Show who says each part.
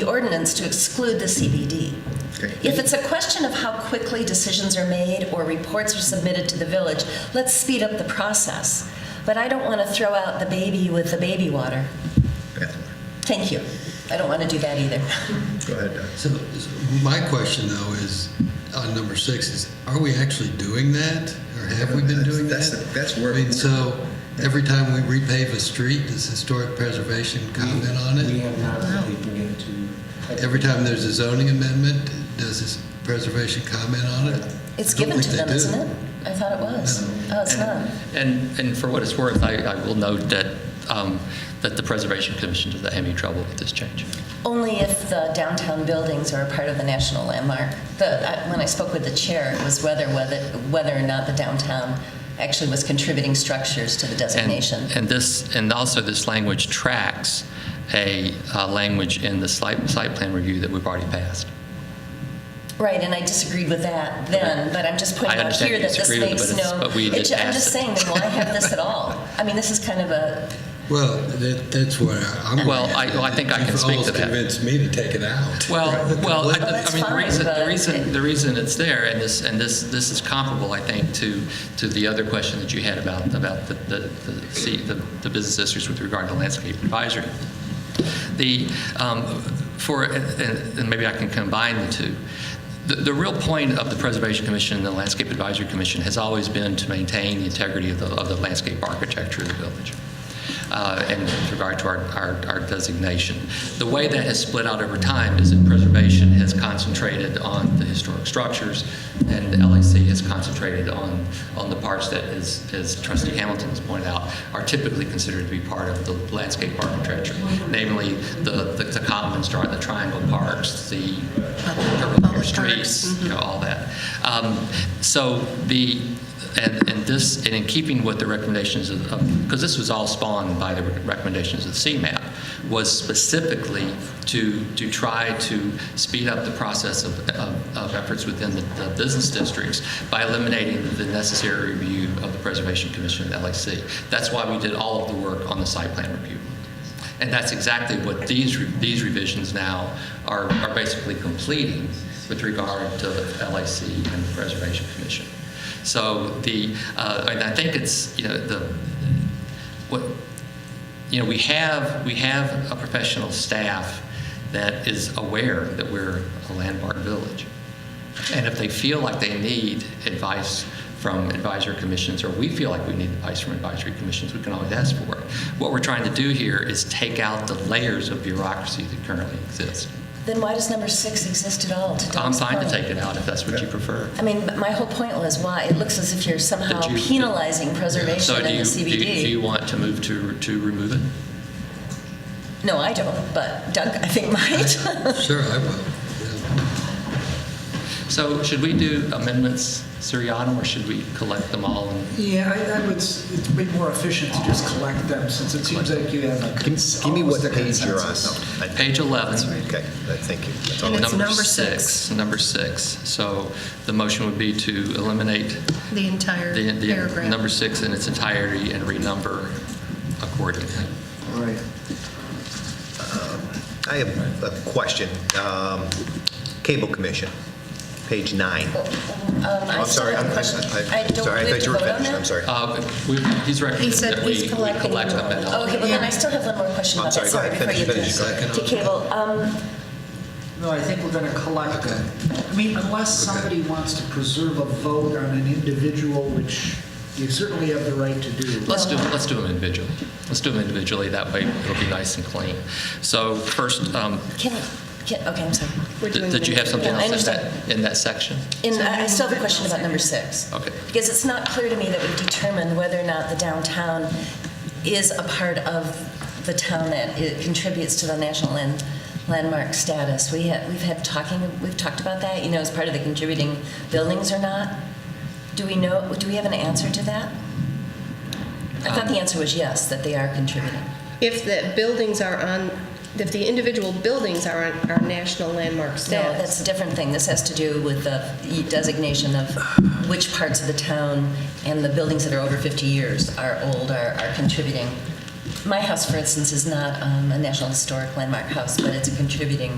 Speaker 1: the ordinance to exclude the CBD.
Speaker 2: Okay.
Speaker 1: If it's a question of how quickly decisions are made or reports are submitted to the village, let's speed up the process. But I don't want to throw out the baby with the baby water.
Speaker 2: Yeah.
Speaker 1: Thank you. I don't want to do that either.
Speaker 2: Go ahead, Doug.
Speaker 3: So so my question though is, on number six, is are we actually doing that? Or have we been doing
Speaker 2: That's-
Speaker 3: that?
Speaker 2: that's- that's where-
Speaker 3: I mean, so every time we repave a street, does historic preservation comment on
Speaker 4: We
Speaker 3: it?
Speaker 4: have not, but we can get to.
Speaker 3: Every time there's a zoning amendment, does this preservation comment on it?
Speaker 1: It's
Speaker 3: I don't
Speaker 1: given to
Speaker 3: think
Speaker 1: them,
Speaker 3: they do.
Speaker 1: isn't it? I thought it was. Oh, it's not.
Speaker 5: And, and for what it's worth, I, I will note that, um, that the Preservation Commission does not have any trouble with this change.
Speaker 1: Only if the downtown buildings are a part of the national landmark. The, I- when I spoke with the chair, it was whether, whether, whether or not the downtown actually was contributing structures to the
Speaker 5: And,
Speaker 1: designation.
Speaker 5: and this, and also this language tracks a uh, language in the site, site plan review that we've already passed.
Speaker 1: Right, and I disagreed with that then, but I'm just pointing
Speaker 5: I
Speaker 1: out
Speaker 5: understand
Speaker 1: here
Speaker 5: you
Speaker 1: that this
Speaker 5: disagreed with it,
Speaker 1: makes
Speaker 5: but it's-
Speaker 1: no.
Speaker 5: but we
Speaker 1: it
Speaker 5: did
Speaker 1: ju- I'm
Speaker 5: pass
Speaker 1: just
Speaker 5: it.
Speaker 1: saying, then why have this at all? I mean, this is kind of a,
Speaker 3: Well, that, that's where I'm.
Speaker 5: Well, I- well, I think I can speak to
Speaker 3: You've
Speaker 5: that.
Speaker 3: almost convinced me to take it out.
Speaker 5: Well, well, I,
Speaker 1: Well, that's
Speaker 5: I mean, the
Speaker 1: fine,
Speaker 5: reason, the
Speaker 1: but it-
Speaker 5: reason, the reason it's there, and this, and this, this is comparable, I think, to, to the other question that you had about, about the, the, the, see, the, the business districts with regard to landscape advisory. The, um, for, and, and maybe I can combine the two. The, the real point of the Preservation Commission and the Landscape Advisory Commission has always been to maintain the integrity of the, of the landscape architecture of the village uh, and with regard to our, our, our designation. The way that has split out over time is that preservation has concentrated on the historic structures, and LAC has concentrated on, on the parts that, as, as Trustee Hamilton has pointed out, are typically considered to be part of the landscape architecture, namely the, the, the commons, the triangle parks, the
Speaker 6: Public
Speaker 5: streets,
Speaker 6: parks.
Speaker 5: you know, all that. Um, So the, and, and this, and in keeping with the recommendations of, because this was all spawned by the recommendations of CMAP, was specifically to, to try to speed up the process of, of of efforts within the the business districts by eliminating the necessary review of the Preservation Commission and LAC. That's why we did all of the work on the site plan review. And that's exactly what these, re- these revisions now are, are basically completing with regard to the LAC and the Preservation Commission. So the, uh, and I think it's, you know, the, what, you know, we have, we have a professional staff that is aware that we're a landmark village. And if they feel like they need advice from advisory commissions, or we feel like we need advice from advisory commissions, we can always ask for it. What we're trying to do here is take out the layers of bureaucracy that currently exist.
Speaker 1: then why does number six exist at all? to
Speaker 5: I'm
Speaker 1: Don's
Speaker 5: fine to
Speaker 1: point?
Speaker 5: take it out if that's what you prefer.
Speaker 1: I mean, but my whole point was why, it looks as if you're somehow
Speaker 5: Did you-
Speaker 1: penalizing preservation
Speaker 5: So
Speaker 1: and
Speaker 5: do
Speaker 1: the
Speaker 5: you, do you- do
Speaker 1: CBD.
Speaker 5: you want to move to, to remove it?
Speaker 1: No, I don't, but Doug, I think might. Um,
Speaker 3: Sure, I will. Yeah.
Speaker 5: So should we do amendments seriatim, or should we collect them all? and-
Speaker 7: Yeah, I, I would, s- it's way more efficient to just collect them, since it seems like you have a. cons-
Speaker 2: Give me what
Speaker 7: almost a
Speaker 2: page you're on.
Speaker 7: consensus.
Speaker 5: Page 11.
Speaker 2: Okay, thank you. That's all.
Speaker 6: And it's
Speaker 5: Number
Speaker 6: number
Speaker 5: six,
Speaker 6: six.
Speaker 5: number six. So the motion would be to eliminate
Speaker 6: The entire
Speaker 5: the, the
Speaker 6: paragraph.
Speaker 5: number six in its entirety and renumber accordingly.
Speaker 4: All right.
Speaker 2: I have a question. Um, Cable Commission, page nine.
Speaker 1: I'm
Speaker 2: Oh, I'm sorry, I'm, I'm- I'm-
Speaker 1: Oh, I don't,
Speaker 2: sorry, I
Speaker 1: we have to
Speaker 2: thought you were
Speaker 1: vote on
Speaker 2: finished, I'm
Speaker 1: that?
Speaker 2: sorry.
Speaker 5: Uh, we- He's
Speaker 6: He
Speaker 5: recommended
Speaker 6: said
Speaker 5: that
Speaker 6: he's
Speaker 5: we we
Speaker 6: collecting
Speaker 5: collect them and all.
Speaker 1: Oh, Okay, well then I still have one more question
Speaker 2: I'm
Speaker 1: about that,
Speaker 2: sorry, go
Speaker 1: sorry,
Speaker 2: ahead,
Speaker 1: before you do.
Speaker 2: finish, finish,
Speaker 1: To cable, um,
Speaker 7: No, I think we're gonna collect them. I mean, unless somebody wants to preserve a vote on an individual, which you certainly have the right to do.
Speaker 5: Let's do, let's do them individually. Let's do them individually, that way it'll be nice and clean. So first, um,
Speaker 1: can, can, okay, I'm sorry.
Speaker 6: We're doing
Speaker 5: did did you have something
Speaker 1: Yeah, I
Speaker 5: else in that, in that section?
Speaker 1: And I I still have a question about number six.
Speaker 5: Okay.
Speaker 1: Because it's not clear to me that we've determined whether or not the downtown is a part of the town that it contributes to the national land- landmark status. We have, we've had talking, we've talked about that, you know, as part of the contributing buildings or not. Do we know, do we have an answer to that? I thought the answer was yes, that they are contributing.
Speaker 6: If the buildings are on, if the individual buildings are on our national landmark
Speaker 1: No,
Speaker 6: status.
Speaker 1: that's a different thing. This has to do with the designation of which parts of the town and the buildings that are over 50 years are old, are, are contributing. My house, for instance, is not um, a National Historic Landmark house, but it's a contributing